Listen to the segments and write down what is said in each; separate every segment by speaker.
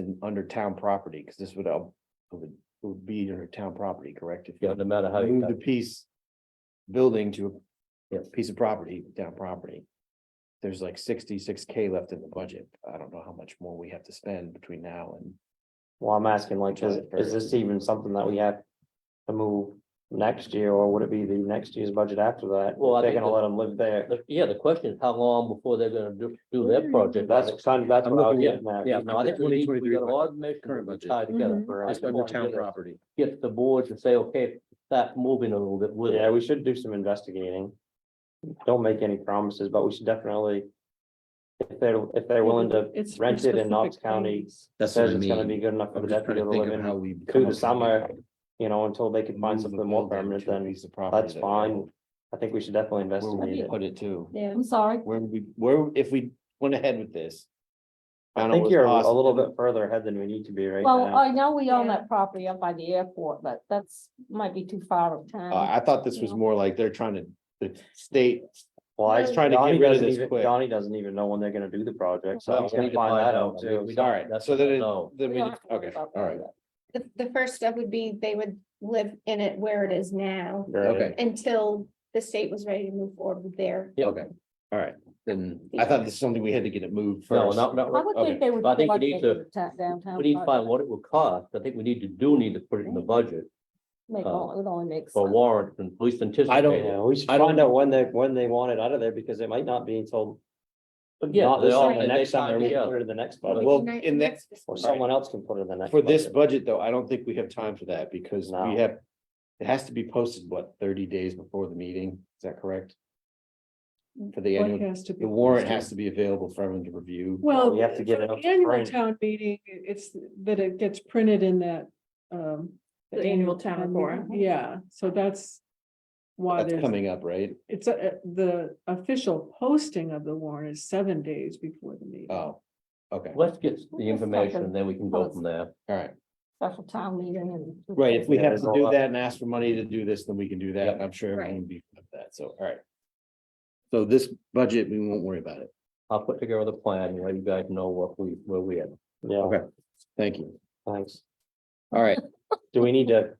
Speaker 1: and under town property, because this would, uh, would, would be under town property, correct? If
Speaker 2: Yeah,
Speaker 1: you
Speaker 2: no matter how you
Speaker 1: move
Speaker 2: cut
Speaker 1: the
Speaker 2: it.
Speaker 1: piece, building to a
Speaker 2: Yes.
Speaker 1: piece of property, town property. There's like sixty-six K left in the budget. I don't know how much more we have to spend between now and
Speaker 3: Well, I'm asking like, is, is this even something that we have to move next year, or would it be the next year's budget after that?
Speaker 2: Well, I
Speaker 3: They're
Speaker 2: think
Speaker 3: gonna
Speaker 2: the-
Speaker 3: let them live there.
Speaker 2: The- Yeah, the question is how long before they're gonna do, do their project.
Speaker 3: That's kind of, that's
Speaker 4: I'm
Speaker 3: what I was
Speaker 4: looking
Speaker 3: getting at.
Speaker 2: Yeah, no, I think we need, we
Speaker 4: 2023
Speaker 2: got a lot of measures
Speaker 4: current
Speaker 2: to
Speaker 4: budget.
Speaker 2: tie together.
Speaker 3: For us.
Speaker 4: Mm-hmm. Just under town property.
Speaker 2: Get the boards to say, okay, start moving a little bit with
Speaker 3: Yeah,
Speaker 2: it.
Speaker 3: we should do some investigating. Don't make any promises, but we should definitely. If they're, if they're willing to
Speaker 5: It's for
Speaker 3: rent it in Knox
Speaker 5: specific
Speaker 3: County,
Speaker 5: things.
Speaker 4: That's what
Speaker 3: says
Speaker 4: I
Speaker 3: it's gonna be
Speaker 4: mean.
Speaker 3: good enough for
Speaker 4: I'm
Speaker 3: the
Speaker 4: just trying to
Speaker 3: deputy to
Speaker 4: think
Speaker 3: live
Speaker 4: of how
Speaker 3: in,
Speaker 4: we.
Speaker 3: through the summer, you know, until they can find
Speaker 1: move the
Speaker 3: something more
Speaker 1: building
Speaker 3: permanent,
Speaker 1: to a
Speaker 3: then
Speaker 1: piece of property
Speaker 3: that's
Speaker 1: that-
Speaker 3: fine. I think we should definitely
Speaker 1: Where would we
Speaker 3: investigate it.
Speaker 1: put it to?
Speaker 6: Yeah,
Speaker 5: I'm sorry.
Speaker 1: Where would we, where, if we went ahead with this?
Speaker 3: I
Speaker 1: found out
Speaker 3: think
Speaker 1: what's
Speaker 3: you're a
Speaker 1: possible,
Speaker 3: little bit further ahead than we need to be right
Speaker 5: Well,
Speaker 7: uh,
Speaker 3: now.
Speaker 5: I know we own
Speaker 6: Yeah.
Speaker 5: that property up by the airport, but that's, might be too far of
Speaker 1: uh,
Speaker 5: town.
Speaker 1: I thought this was more like they're trying to, the state
Speaker 3: Well, I
Speaker 1: is trying to get
Speaker 3: Donnie
Speaker 1: rid of
Speaker 3: doesn't
Speaker 1: this
Speaker 3: even-
Speaker 1: quick.
Speaker 3: Donnie doesn't even know when they're gonna do the project, so
Speaker 2: Well,
Speaker 3: I'm
Speaker 2: we
Speaker 3: gonna
Speaker 2: need to
Speaker 3: find
Speaker 2: find
Speaker 3: that
Speaker 2: that
Speaker 3: out
Speaker 2: out.
Speaker 3: too.
Speaker 2: We- we
Speaker 3: so-
Speaker 1: All right,
Speaker 2: That's
Speaker 1: so then,
Speaker 2: what I
Speaker 1: it-
Speaker 2: know.
Speaker 1: then
Speaker 5: We
Speaker 1: we,
Speaker 5: don't
Speaker 1: need-
Speaker 5: have to worry
Speaker 1: okay, all
Speaker 5: about that
Speaker 1: right,
Speaker 5: yet.
Speaker 6: the, the first step would be they would live in it where it is now
Speaker 3: Right.
Speaker 1: okay,
Speaker 6: until the state was ready to move forward with their.
Speaker 2: Yeah.
Speaker 1: okay, all right. Then I thought this is something we had to get it moved
Speaker 2: No,
Speaker 1: first.
Speaker 2: not, not,
Speaker 5: I would
Speaker 1: Okay.
Speaker 5: think they would.
Speaker 2: I think we
Speaker 5: like
Speaker 2: need
Speaker 5: it
Speaker 2: to-
Speaker 5: in ta- Downtown.
Speaker 2: we need to find
Speaker 5: project.
Speaker 2: what it would cost. I think we need to, do need to put it in the budget
Speaker 5: Make
Speaker 2: uh,
Speaker 5: all- it only makes
Speaker 2: for
Speaker 5: sense.
Speaker 2: warrant and police anticipate.
Speaker 1: I don't-
Speaker 3: Yeah, we should
Speaker 1: I don't
Speaker 3: find out when they, when they want it out of there, because it might not be until,
Speaker 2: But yeah,
Speaker 3: not
Speaker 2: they
Speaker 3: this
Speaker 2: all,
Speaker 3: summer,
Speaker 2: they
Speaker 3: the next
Speaker 2: tie
Speaker 3: summer, we can
Speaker 2: together.
Speaker 3: put it in the next
Speaker 2: Well,
Speaker 3: budget,
Speaker 1: Well,
Speaker 6: Nice-
Speaker 1: in that-
Speaker 6: next-
Speaker 3: or someone else can put it in the next.
Speaker 1: For this
Speaker 3: budget.
Speaker 1: budget, though, I don't think we have time for that because
Speaker 3: No.
Speaker 1: we have, it has to be posted, what, thirty days before the meeting? Is that correct? For the
Speaker 5: What
Speaker 1: annual,
Speaker 5: has to be
Speaker 1: the warrant
Speaker 5: posted?
Speaker 1: has to be available for everyone to review.
Speaker 5: Well,
Speaker 3: We have to
Speaker 5: for
Speaker 3: get it
Speaker 5: the
Speaker 3: up to
Speaker 5: annual
Speaker 3: print.
Speaker 5: town meeting, it's that it gets printed in that, um.
Speaker 6: The annual town report.
Speaker 5: meeting. Yeah, so that's why
Speaker 1: That's
Speaker 5: there's,
Speaker 1: coming up, right?
Speaker 5: it's a, the official posting of the warrant is seven days before the
Speaker 3: Uh,
Speaker 5: meeting.
Speaker 1: Oh, okay, all
Speaker 2: Let's get the information and then we can go from there.
Speaker 1: right.
Speaker 5: Special town meeting and.
Speaker 1: Right, if we
Speaker 3: Yeah,
Speaker 1: have
Speaker 3: there's
Speaker 1: to
Speaker 3: a
Speaker 1: do
Speaker 3: lot.
Speaker 1: that and ask for money to do this, then we can do that.
Speaker 2: Yep.
Speaker 1: and I'm sure
Speaker 6: Right.
Speaker 1: everyone would be of that, so, all right. So this budget, we won't worry about it.
Speaker 2: I'll put together the plan and let you guys know what we, where we are.
Speaker 3: Yeah,
Speaker 1: Okay. Thank you.
Speaker 3: thanks.
Speaker 1: All right,
Speaker 3: Do we need to?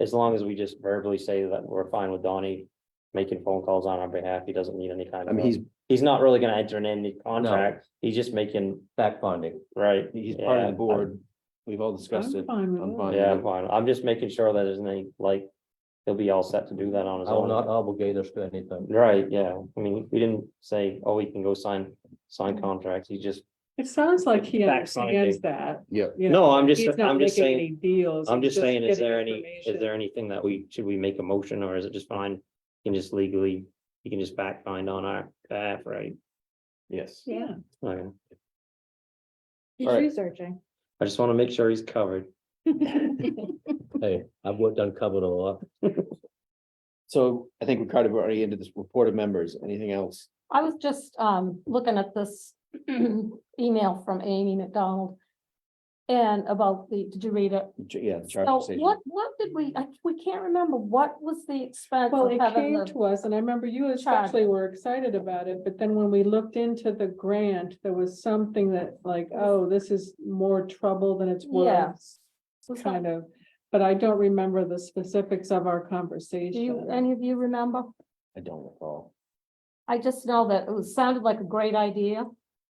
Speaker 3: As long as we just verbally say that we're fine with Donnie making phone calls on our behalf, he doesn't need any kind
Speaker 1: I
Speaker 3: of,
Speaker 1: mean, he's,
Speaker 3: he's not really gonna enter in any contract, he's just making,
Speaker 2: Fact finding.
Speaker 3: right?
Speaker 1: he's part of
Speaker 3: Yeah,
Speaker 1: the board. We've all discussed it.
Speaker 5: I'm fine with
Speaker 1: I'm
Speaker 5: that.
Speaker 1: fine.
Speaker 3: Yeah, I'm fine, I'm just making sure that there's any, like, he'll be all set to do that on his
Speaker 2: I will not
Speaker 3: own.
Speaker 2: obligate us to anything.
Speaker 3: Right, yeah, I mean, we didn't say, oh, he can go sign, sign contracts, he just,
Speaker 5: It sounds like he
Speaker 3: Fact finding.
Speaker 5: understands that.
Speaker 1: Yep.
Speaker 5: you know,
Speaker 3: no, I'm just,
Speaker 5: He's not
Speaker 3: I'm just
Speaker 5: making
Speaker 3: saying.
Speaker 5: any deals.
Speaker 3: I'm
Speaker 5: he's
Speaker 3: just saying, is
Speaker 5: getting
Speaker 3: there any, is
Speaker 5: information.
Speaker 3: there anything that we, should we make a motion or is it just fine? You can just legally, you can just back find on our behalf, right?
Speaker 1: Yes.
Speaker 5: Yeah.
Speaker 3: Okay.
Speaker 6: He's
Speaker 1: Alright.
Speaker 6: researching.
Speaker 3: I just want to make sure he's covered.
Speaker 2: Hey, I've worked uncovered a lot.
Speaker 1: So I think Ricardo, we're already into this report of members. Anything else?
Speaker 7: I was just um looking at this email from Amy McDonald. And about the, did you read it?
Speaker 1: J- Yeah, the
Speaker 7: So
Speaker 1: charging station.
Speaker 7: what, what did we, I, we can't remember, what was the expense
Speaker 5: Well,
Speaker 7: of
Speaker 5: it
Speaker 7: having
Speaker 5: came
Speaker 7: the,
Speaker 5: to us, and I remember you especially were excited about it, but then when we looked into the grant, there was something that like, oh, this is more trouble than it's
Speaker 7: Yeah.
Speaker 5: worth.
Speaker 7: was that-
Speaker 5: Kind of, but I don't remember the specifics of our
Speaker 7: do you,
Speaker 5: conversation.
Speaker 7: any of you remember?
Speaker 1: I don't recall.
Speaker 7: I just know that it was- sounded like a great idea,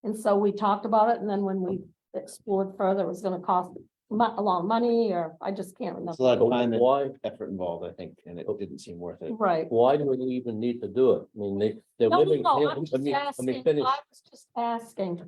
Speaker 7: and so we talked about it, and then when we explored further, it was gonna cost mu- a lot of money, or I just can't
Speaker 1: There's a
Speaker 7: remember.
Speaker 1: lot
Speaker 2: But
Speaker 1: of time and
Speaker 2: Why,
Speaker 1: effort involved, I think, and it didn't seem worth it.
Speaker 7: Right.
Speaker 2: why do we even need to do it? I mean, they, they're
Speaker 7: No, no,
Speaker 2: living.
Speaker 7: no,
Speaker 2: here.
Speaker 7: I'm
Speaker 2: Let
Speaker 7: just
Speaker 2: me- let me
Speaker 7: asking, I
Speaker 2: finish.
Speaker 7: was just asking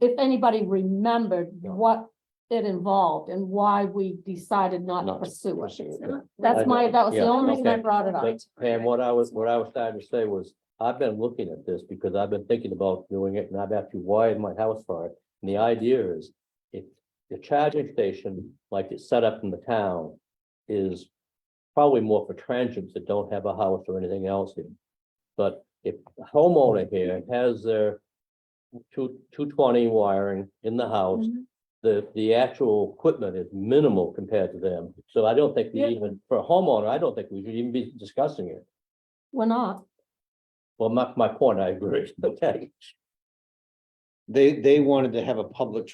Speaker 7: if anybody remembered
Speaker 2: No.
Speaker 7: what it involved and why we decided not
Speaker 2: Not
Speaker 7: to
Speaker 2: to
Speaker 7: pursue
Speaker 2: pursue it,
Speaker 7: it.
Speaker 2: yeah.
Speaker 7: That's my, that was the
Speaker 2: Yeah,
Speaker 7: only reason I
Speaker 2: okay.
Speaker 7: brought it up.
Speaker 2: But- And what I was, what I was trying to say was, I've been looking at this because I've been thinking about doing it and I've actually wired my house for it. And the idea is, if the charging station, like it's set up in the town, is probably more for transients that don't have a house or anything else. in. But if a homeowner here has their two, two twenty wiring in the house, the, the actual equipment is minimal compared to them. So I don't think we
Speaker 5: Yeah.
Speaker 2: even, for a homeowner, I don't think we should even be discussing it.
Speaker 7: We're not.
Speaker 2: Well, my, my point, I agree. Okay.
Speaker 1: They, they wanted to have a public